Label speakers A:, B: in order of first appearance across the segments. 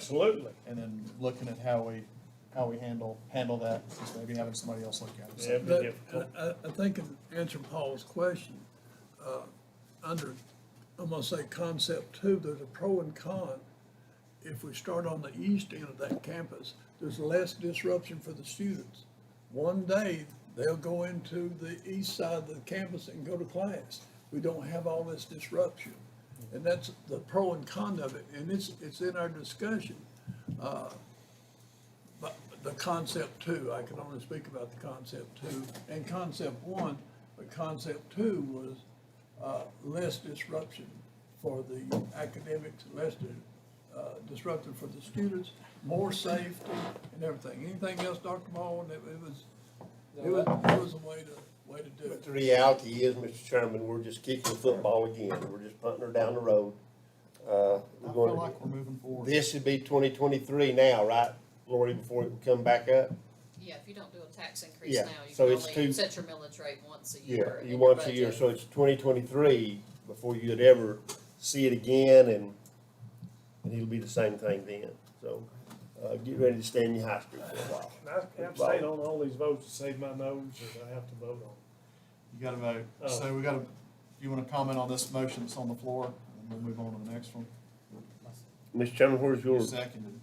A: Absolutely.
B: and then looking at how we, how we handle, handle that, just maybe having somebody else look at it.
A: Yeah,
B: So,
A: it'd be
C: But
A: difficult.
C: I, I- I think in answering Paul's question, uh, under, I'm gonna say concept two, there's a pro and con. If we start on the east end of that campus, there's less disruption for the students. One day, they'll go into the east side of the campus and go to class. We don't have all this disruption. And that's the pro and con of it, and it's, it's in our discussion. But the concept two, I can only speak about the concept two and concept one, but concept two was uh, less disruption for the academics, less di- uh, disruption for the students, more safety and everything. Anything else, Dr. Baldwin? It it was, it was, it was a way to, way to do
D: But
C: it.
D: the reality is, Mr. Chairman, we're just kicking the football again. We're just punting her down the road.
B: I
D: Uh, we're
B: feel
D: going,
B: like we're moving forward.
D: this should be twenty twenty-three now, right, Lori, before it would come back up?
E: Yeah, if you don't do a tax increase
D: Yeah,
E: now, you
D: so
E: can
D: it's
E: only
D: two-
E: set your millage rate once a year.
D: Yeah,
E: in
D: you
E: your
D: once a year,
E: budget.
D: so it's twenty twenty-three before you'd ever see it again and, and it'll be the same thing then. So, uh, get ready to stay in your high school for a while.
A: And I abstain on all these votes to save my nose that I have to vote on.
B: You gotta vote.
A: Oh.
B: So we gotta, you wanna comment on this motion that's on the floor, and we'll move on to the next one?
D: Mr. Chairman, where's your,
B: You seconded.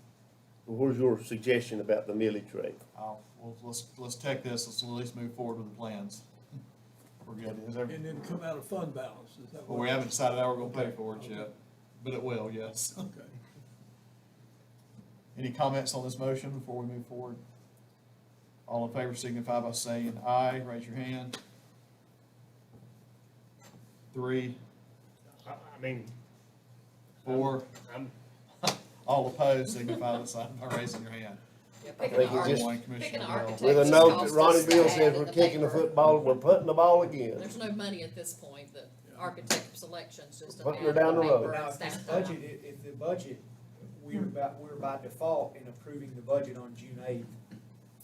D: where's your suggestion about the millage rate?
B: I'll, well, let's, let's take this, let's at least move forward with the plans. We're good. Is every-
C: And then come out of fund balance, is that
B: Well,
C: what?
B: we haven't decided how we're gonna pay for it yet, but it will, yes.
C: Okay.
B: Any comments on this motion before we move forward? All in favor signify by saying aye, raise your hand. Three,
A: I, I mean,
B: four,
A: I'm,
B: all opposed signify by sign- by raising your hand.
E: Yeah,
D: I
E: picking
D: think
E: an
D: we
E: arch-
D: just-
B: One, Commissioner
E: picking an
B: Bell.
E: architect
D: With a
E: just
D: note
E: costs
D: that
E: us
D: Ronnie
E: to
D: Bill
E: add
D: says
E: in
D: we're
E: the
D: kicking the
E: paper.
D: football, we're punting the ball again.
E: There's no money at this point, the architect selection's just an
D: Putting her
E: add
D: down
E: on
D: the road.
E: paper
F: Now,
E: and
F: if this
E: staff time.
F: budget, if, if the budget, we're about, we're by default in approving the budget on June eighth,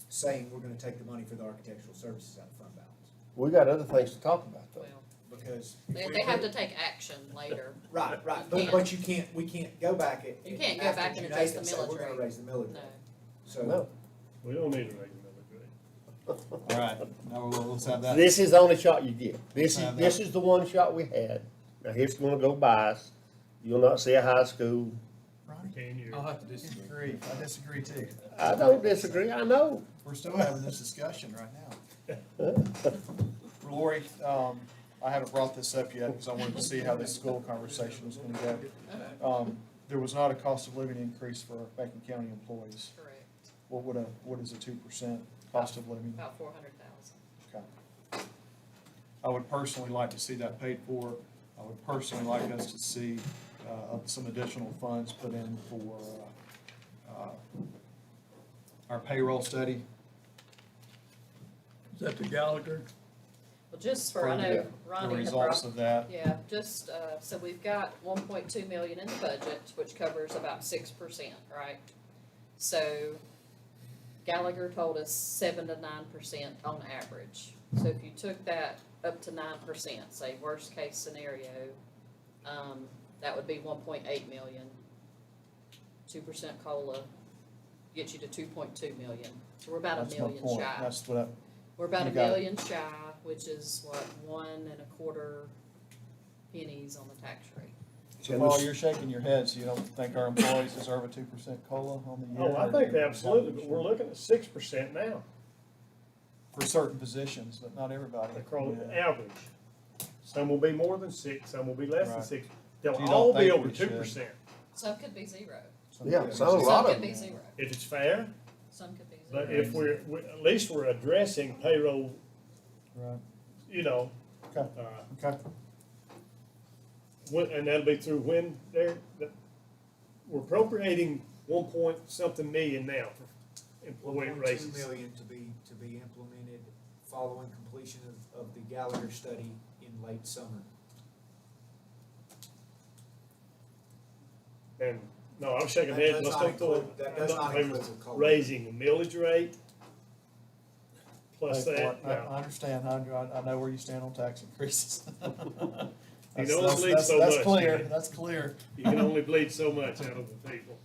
F: saying we're gonna take the money for the architectural services out of fund balance,
D: We got other things to talk about though.
E: Well,
F: because. if
E: They,
F: we
E: they have to
F: approve-
E: take action later.
F: Right, right,
E: You
F: but,
E: can't.
F: but you can't, we can't go back at.
E: You can't go
F: after
E: back and
F: June
E: adjust
F: 8th and
E: the
F: say,
E: millage
F: We're
E: rate."
F: gonna raise the millage
E: No.
F: rate, so,
D: No.
A: we don't need a regular millage rate.
B: All right, now we'll, let's have that.
D: This is the only shot you get. This
B: Uh,
D: is,
B: that-
D: this is the one shot we had. Now here's gonna go by us. You'll not see a high school.
B: Ronnie,
A: Can you?
C: Uh,
B: I'll have to disagree. I disagree too.
D: I don't disagree, I know.
B: We're still having this discussion right now. Lori, um, I haven't brought this up yet because I wanted to see how this school conversation was gonna go. Um, there was not a cost of living increase for Macon County employees.
E: Correct,
B: What would a, what is a two percent cost of living?
E: about four hundred thousand.
B: Okay. I would personally like to see that paid for. I would personally like us to see, uh, some additional funds put in for, uh, uh, our payroll study.
C: Is that the Gallagher?
E: Well, just for, I
B: For
E: know
D: the-
B: The
E: Ronnie had brought
B: results of that.
E: Yeah, just, uh, so we've got one point two million in the budget, which covers about six percent, right? So Gallagher told us seven to nine percent on average. So if you took that up to nine percent, say worst case scenario, um, that would be one point eight million. Two percent COLA gets you to two point two million. So we're about a
B: That's my
E: million
B: point.
E: shy.
B: That's what I,
E: We're about a
B: You got it.
E: million shy, which is what, one and a quarter pennies on the tax rate.
B: so Paul, you're shaking your head, so you don't think our employees deserve a two percent COLA on the year?
A: Oh, I think absolutely, but we're looking at six percent now,
B: For certain positions, but not everybody.
A: across the
B: Yeah.
A: average. Some will be more than six, some will be less than
B: Right.
A: six.
B: So you
A: They'll
B: don't
A: all be
B: think
A: over
B: we
A: two
B: should?
A: percent.
E: Some could be zero,
D: Yeah, so a
E: some
D: lot of
E: could be
D: them.
E: zero,
A: If it's fair,
E: some could be zero.
A: but if we're, we- at least we're addressing payroll,
B: Right,
A: you know,
B: okay,
A: uh,
B: okay.
A: when, and that'll be through when they're, that- we're appropriating one point something million now for employee
F: 1.2
A: raises.
F: million to be, to be implemented following completion of, of the Gallagher study in late summer.
A: And, no, I'm shaking
F: That
A: heads,
F: does
A: let's
F: not
A: don't go-
F: include- that
A: I'm
F: does
A: not
F: not
A: in favor
F: include
A: of
F: the COLA.
A: Raising the millage rate. Plus
B: Hey,
A: that,
B: Clark, I, I understand, I, I I know where you stand on tax increases. That's-
A: only
B: that's-
A: leaves so
B: That's
A: much,
B: clear,
A: man.
B: that's clear.
A: you can only bleed so much out of the people.